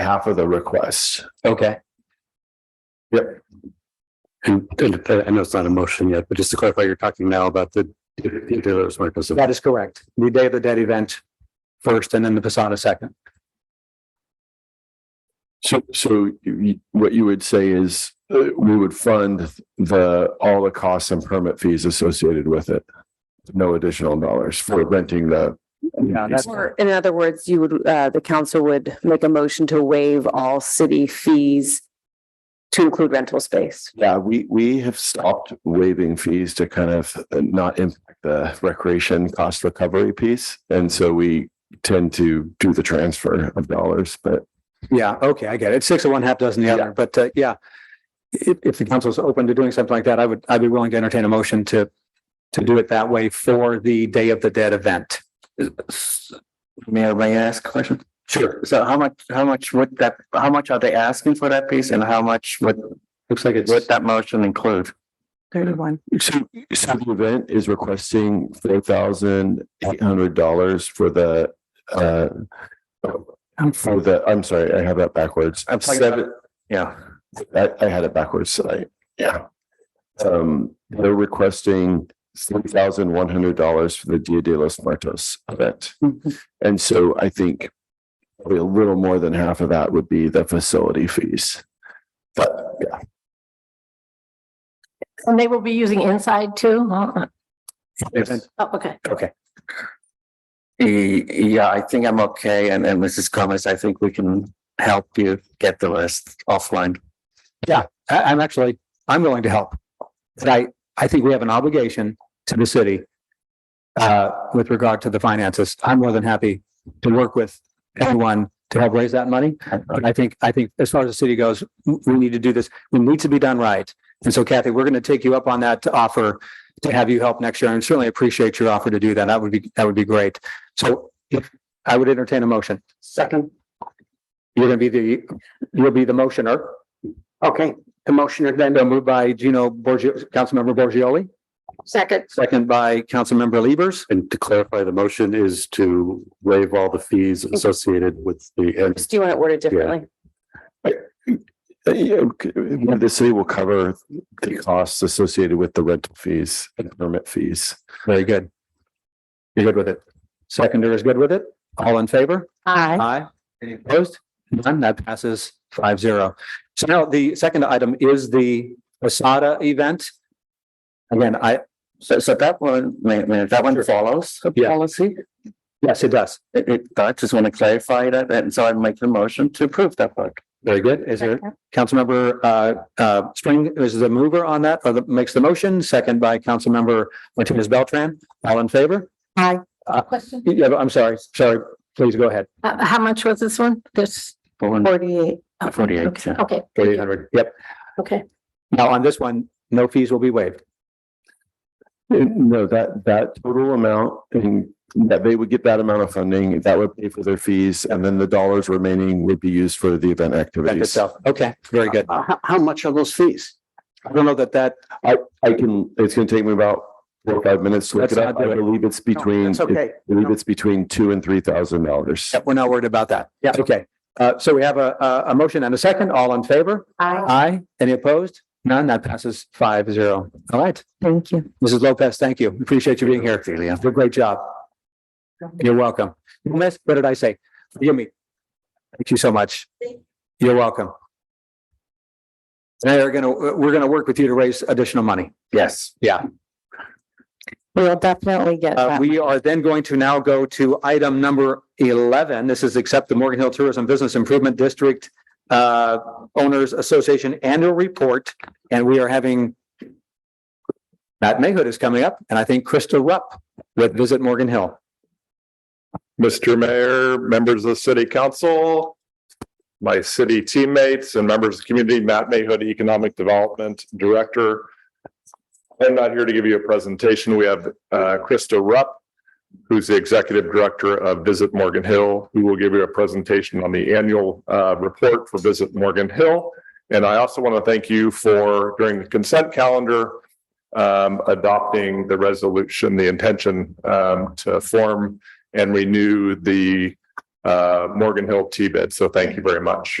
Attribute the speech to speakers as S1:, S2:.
S1: half of the request.
S2: Okay.
S3: And, and
S2: uh,
S3: I know it's not a motion yet, but just to clarify, you're talking now about the the dealer's market. So
S2: That is correct. The Day of the Dead event first and then the Posada second.
S1: So, so you, what you would say is, uh, we would fund the, all the costs and permit fees associated with it. No additional dollars for renting the.
S2: Yeah, that's-
S4: Or in other words, you would, uh, the council would make a motion to waive all city fees to include rental space.
S1: Yeah, we, we have stopped waiving fees to kind of not impact the recreation cost recovery piece. And so we tend to do the transfer of dollars, but
S2: Yeah, okay, I get it. It's Six of one, half dozen the other, but uh, yeah. If, if the council's open to doing something like that, I would, I'd be willing to entertain a motion to, to do it that way for the Day of the Dead event.
S5: Mayor, may I ask a question? Sure. So how much, how much would that, how much are they asking for that piece and how much would,
S2: Looks like it's.
S5: would that motion include?
S4: Thirty-one.
S1: So, so the event is requesting four thousand eight hundred dollars for the, uh, for the, I'm sorry, I have that backwards.
S5: I'm talking about-
S1: Seven,
S5: Yeah.
S1: I, I had it backwards tonight. Yeah. Um, they're requesting three thousand one hundred dollars for the Dia de los Muertos event. And so I think probably a little more than half of that would be the facility fees. But yeah,
S6: And they will be using inside too? huh?
S2: Yes.
S6: Oh, okay.
S5: E- Yeah, I think I'm okay. And, and Mrs. Gomez, I think we can help you get the list offline.
S2: I, I'm actually, I'm willing to help. But I, I think we have an obligation to the city uh, with regard to the finances. I'm more than happy to work with anyone to help raise that money. But I think, I think as far as the city goes, w- we need to do this. It needs to be done right. And so Kathy, we're going to take you up on that to offer to have you help next year and certainly appreciate your offer to do that. That would be, that would be great. So if I would entertain a motion. Second. You're going to be the, you'll be the motioner. Okay, the motion is then moved by Gino Borgio, Councilmember Borgioli,
S6: Second.
S2: second by Councilmember Levers.
S3: and to clarify, the motion is to waive all the fees associated with the, and
S4: Do you want it worded differently?
S1: Uh, yeah, okay, uh, the city will cover the costs associated with the rental fees and permit fees.
S2: Very good. You're good with it. Seconder is good with it. All in favor?
S6: Aye.
S2: Aye. Any opposed? None. That passes five zero. So now the second item is the Posada event. Again, I,
S5: So, so that one, may, may, that one follows the
S2: Yeah.
S5: policy?
S2: yes, it does.
S5: It, it, I just want to clarify that. And so I make the motion to approve that part.
S2: Very good. Is there, Councilmember uh uh Spring is the mover on that, or the makes the motion, second by Councilmember Martinez Beltran. All in favor?
S6: Aye.
S2: Uh,
S6: Question?
S2: Yeah, but I'm sorry, sorry. Please go ahead.
S6: Uh, how much was this one? This?
S4: Forty-eight.
S6: oh,
S5: Forty-eight,
S6: okay,
S5: yeah.
S6: Okay,
S2: Forty-eight hundred. Yep.
S6: okay.
S2: Now on this one, no fees will be waived.
S1: Uh, No, that, that total amount, and that they would get that amount of funding, that would pay for their fees, and then the dollars remaining would be used for the event
S2: That
S1: activities.
S2: itself. Okay, very good.
S7: How, how much are those fees?
S2: I don't know that that,
S1: I can, it's gonna take me about four, or five minutes to look
S2: Let's
S1: it up.
S2: not do
S1: I
S2: it.
S1: believe it's between,
S7: That's
S1: I
S7: okay.
S1: believe it's between two and three thousand dollars.
S2: we're not worried about that. Yeah, okay. Uh, so we have a a a motion and a second. All in favor?
S6: Aye.
S2: Aye. Any opposed? None. That passes five zero. All right.
S4: Thank you.
S2: Mrs. Lopez, thank you. Appreciate you being here. You did a great job. You're welcome. Miss, what did I say? Forgive me. Thank you so much. You're welcome. Now you're gonna, we're gonna work with you to raise additional money.
S5: Yes.
S4: We'll definitely get
S2: Uh,
S4: that.
S2: we are then going to now go to item number eleven. This is accept the Morgan Hill Tourism Business Improvement District uh, Owners Association Annual Report, and we are having Matt Mayhood is coming up, and I think Krista Rupp with Visit Morgan Hill.
S8: Mr. Mayor, members of the city council, my city teammates and members of the community, Matt Mayhood, Economic Development Director. I'm not here to give you a presentation. We have uh, Krista Rupp, who's the Executive Director of Visit Morgan Hill, who will give you a presentation on the annual uh, report for Visit Morgan Hill. And I also want to thank you for, during the consent calendar, um, adopting the resolution, the intention um, to form and renew the uh, Morgan Hill T-bid. So thank you very much.